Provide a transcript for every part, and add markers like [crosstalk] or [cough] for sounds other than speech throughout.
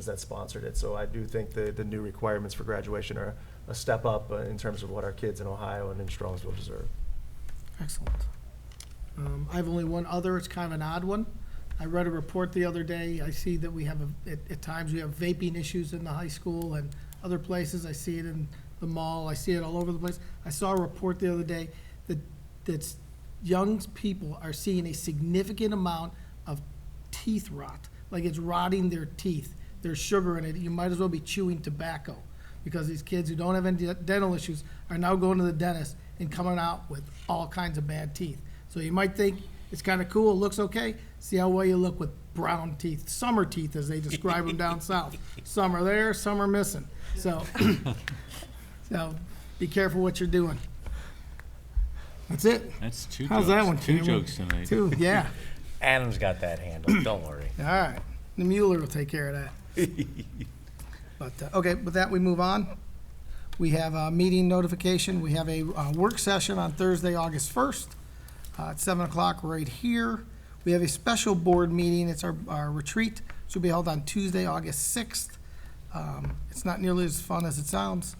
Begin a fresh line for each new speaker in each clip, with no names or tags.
that sponsored it. So I do think the, the new requirements for graduation are a step up uh, in terms of what our kids in Ohio and in Strongsville deserve.
Excellent. Um, I have only one other, it's kind of an odd one. I read a report the other day, I see that we have, a- at, at times, we have vaping issues in the high school and other places, I see it in the mall, I see it all over the place. I saw a report the other day that, that's, young people are seeing a significant amount of teeth rot, like it's rotting their teeth, there's sugar in it, you might as well be chewing tobacco, because these kids who don't have any dental issues are now going to the dentist and coming out with all kinds of bad teeth. So you might think it's kind of cool, it looks okay, see how well you look with brown teeth, summer teeth as they describe them down south. Some are there, some are missing, so, [coughs] so be careful what you're doing. That's it.
That's two
How's
jokes.
that one,
Two
Cameron?
jokes tonight.
Two, yeah.
Adam's got that handled, don't worry.
All right. The Mueller will take care of that. But, uh, okay, with that, we move on. We have a meeting notification. We have a uh, work session on Thursday, August 1st uh, at 7 o'clock right here. We have a special board meeting. It's our our retreat. It will be held on Tuesday, August 6th. Um, It's not nearly as fun as it sounds.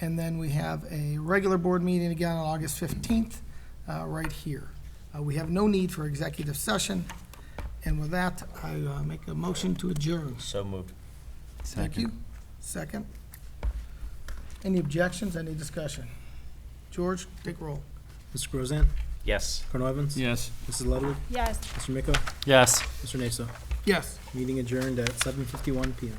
And then we have a regular board meeting again on August 15th, uh, right here. Uh, We have no need for executive session. And with that, I uh, make a motion to adjourn.
So moved.
Thank you. Second. Any objections, any discussion? George, take roll.
Mr. Grozan?
Yes.
Colonel Evans?
Yes.
Mrs. Ludwig?
Yes.
Mr. Miko?
Yes.
Mr. Naso?
Yes.
Meeting adjourned at 7:51 PM.